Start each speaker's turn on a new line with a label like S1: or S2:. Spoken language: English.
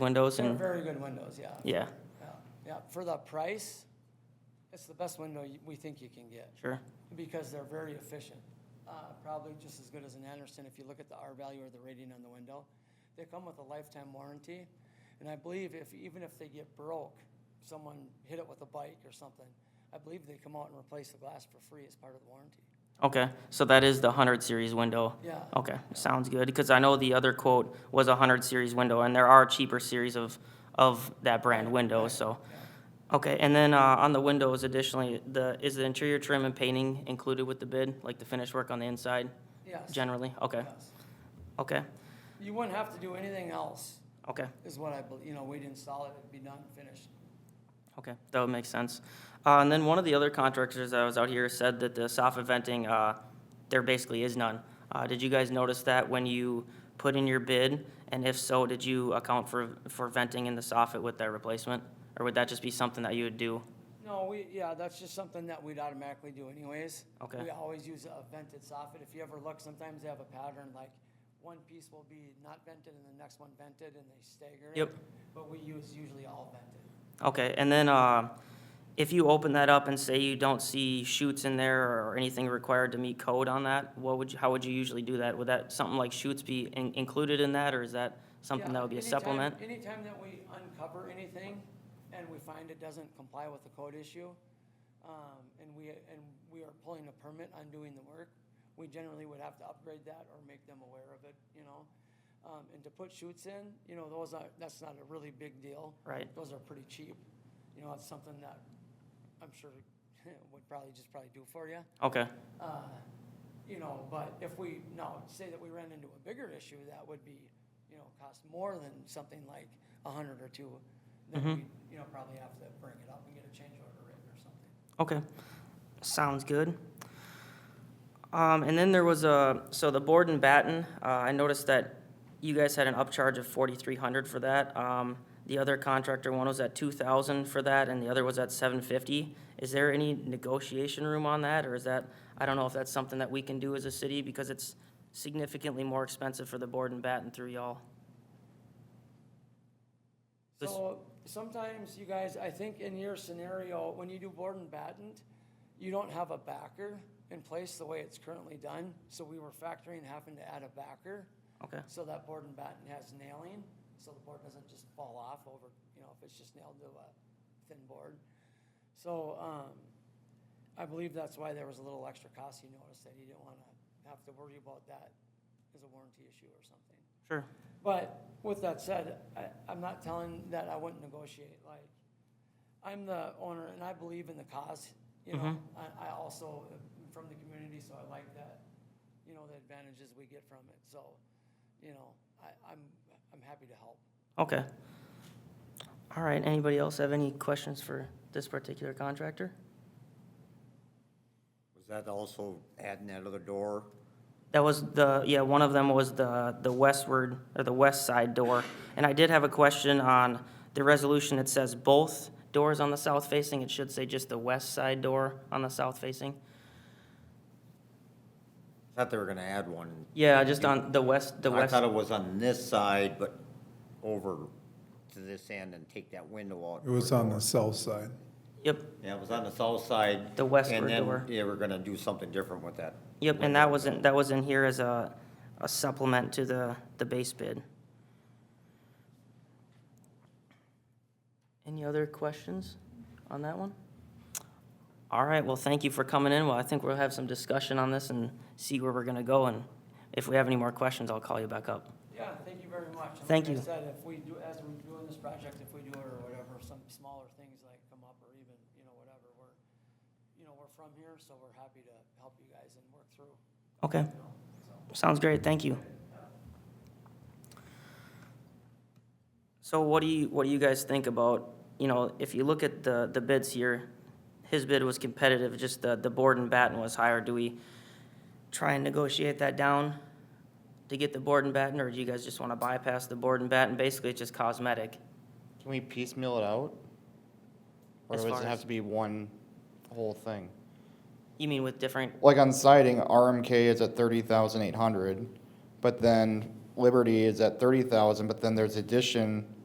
S1: windows
S2: They're
S1: and,
S2: very good windows, yeah.
S1: yeah,
S2: Yeah, yeah. for the price, it's the best window you- we think you can get,
S1: sure.
S2: because they're very efficient. Uh, Probably just as good as an Anderson, if you look at the R value or the rating on the window. They come with a lifetime warranty, and I believe if, even if they get broke, someone hit it with a bike or something, I believe they come out and replace the glass for free as part of the warranty.
S1: Okay, so that is the 100 series window?
S2: Yeah.
S1: Okay, sounds good, because I know the other quote was a 100 series window, and there are cheaper series of, of that brand window, so. Okay, and then uh, on the windows additionally, the, is the interior trim and painting included with the bid, like the finish work on the inside
S2: Yes.
S1: generally? Okay,
S2: yes.
S1: okay,
S2: You wouldn't have to do anything else,
S1: okay.
S2: is what I, bel- you know, we'd install it, it'd be done, finished.
S1: Okay, that would make sense. Uh, and then one of the other contractors that was out here said that the soffit venting, uh, there basically is none. Uh, did you guys notice that when you put in your bid? And if so, did you account for, for venting in the soffit with that replacement? Or would that just be something that you would do?
S2: No, we, yeah, that's just something that we'd automatically do anyways.
S1: Okay.
S2: We always use a vented soffit. If you ever look, sometimes they have a pattern, like one piece will be not vented and the next one vented and they stagger it.
S1: Yep.
S2: But we use usually all vented.
S1: Okay, and then, uh, if you open that up and say you don't see chutes in there or anything required to meet code on that, what would, you- how would you usually do that? Would that, something like chutes be in- included in that, or is that something
S2: Yeah,
S1: that would be a
S2: anytime-
S1: supplement?
S2: Anytime that we uncover anything and we find it doesn't comply with the code issue, um, and we, and we are pulling a permit on doing the work, we generally would have to upgrade that or make them aware of it, you know? Um, and to put chutes in, you know, those are, that's not a really big deal.
S1: Right.
S2: Those are pretty cheap. You know, it's something that I'm sure would probably just probably do for you
S1: Okay,
S2: uh, you know, but if we, no, say that we ran into a bigger issue, that would be, you know, cost more than something like a hundred or two, then we, you know, probably have to bring it up and get a change order written or something.
S1: Okay, sounds good. Um, and then there was a, so the board and batten, uh, I noticed that you guys had an upcharge of forty-three hundred for that. Um, the other contractor, one was at two thousand for that, and the other was at seven fifty. Is there any negotiation room on that, or is that, I don't know if that's something that we can do as a city, because it's significantly more expensive for the board and batten through y'all. This-
S2: So sometimes you guys, I think in your scenario, when you do board and batten, you don't have a backer in place the way it's currently done, so we were factoring having to add a backer.
S1: Okay,
S2: So that board and batten has nailing, so the board doesn't just fall off over, you know, if it's just nailed to a thin board. So, um, I believe that's why there was a little extra cost, you noticed, that he didn't wanna have to worry about that as a warranty issue or something.
S1: sure,
S2: But with that said, I, I'm not telling that I wouldn't negotiate, like, I'm the owner and I believe in the cause, you know?
S1: Mm-hmm.
S2: I, I also am from the community, so I like that, you know, the advantages we get from it, so, you know, I, I'm, I'm happy to help.
S1: okay. All right, anybody else have any questions for this particular contractor?
S3: Was that also adding that other door?
S1: That was the, yeah, one of them was the, the westward, or the west side door. And I did have a question on the resolution, it says both doors on the south facing, it should say just the west side door on the south facing.
S3: I Thought they were gonna add one.
S1: Yeah, just on the west, the
S3: I
S1: west,
S3: thought it was on this side, but over to this end and take that window out.
S4: It was on the south side.
S1: yep,
S3: Yeah, it was on the south side.
S1: The westward
S3: and then,
S1: door.
S3: Yeah, we're gonna do something different with that.
S1: yep, and that was in, that was in here as a, a supplement to the, the base bid. Any other questions on that one? All right, well, thank you for coming in. Well, I think we'll have some discussion on this and see where we're gonna go, and if we have any more questions, I'll call you back up.
S2: Yeah, thank you very much. And
S1: Thank
S2: like I
S1: you.
S2: said, if we do, as we do in this project, if we do it or whatever, some smaller things like come up or even, you know, whatever, we're, you know, we're from here, so we're happy to help you guys and work through,
S1: Okay,
S2: you know, so.
S1: sounds great, thank you. So what do you, what do you guys think about, you know, if you look at the, the bids here, his bid was competitive, just the, the board and batten was higher. Do we try and negotiate that down to get the board and batten, or do you guys just want to bypass the board and batten? Basically, it's just cosmetic.
S5: Can we piecemeal it out? Or
S1: As
S5: does
S1: far
S5: it have
S1: as-
S5: to be one whole thing?
S1: You mean with different,
S5: Like on siding, RMK is at thirty thousand eight hundred, but then Liberty is at thirty thousand, but then there's addition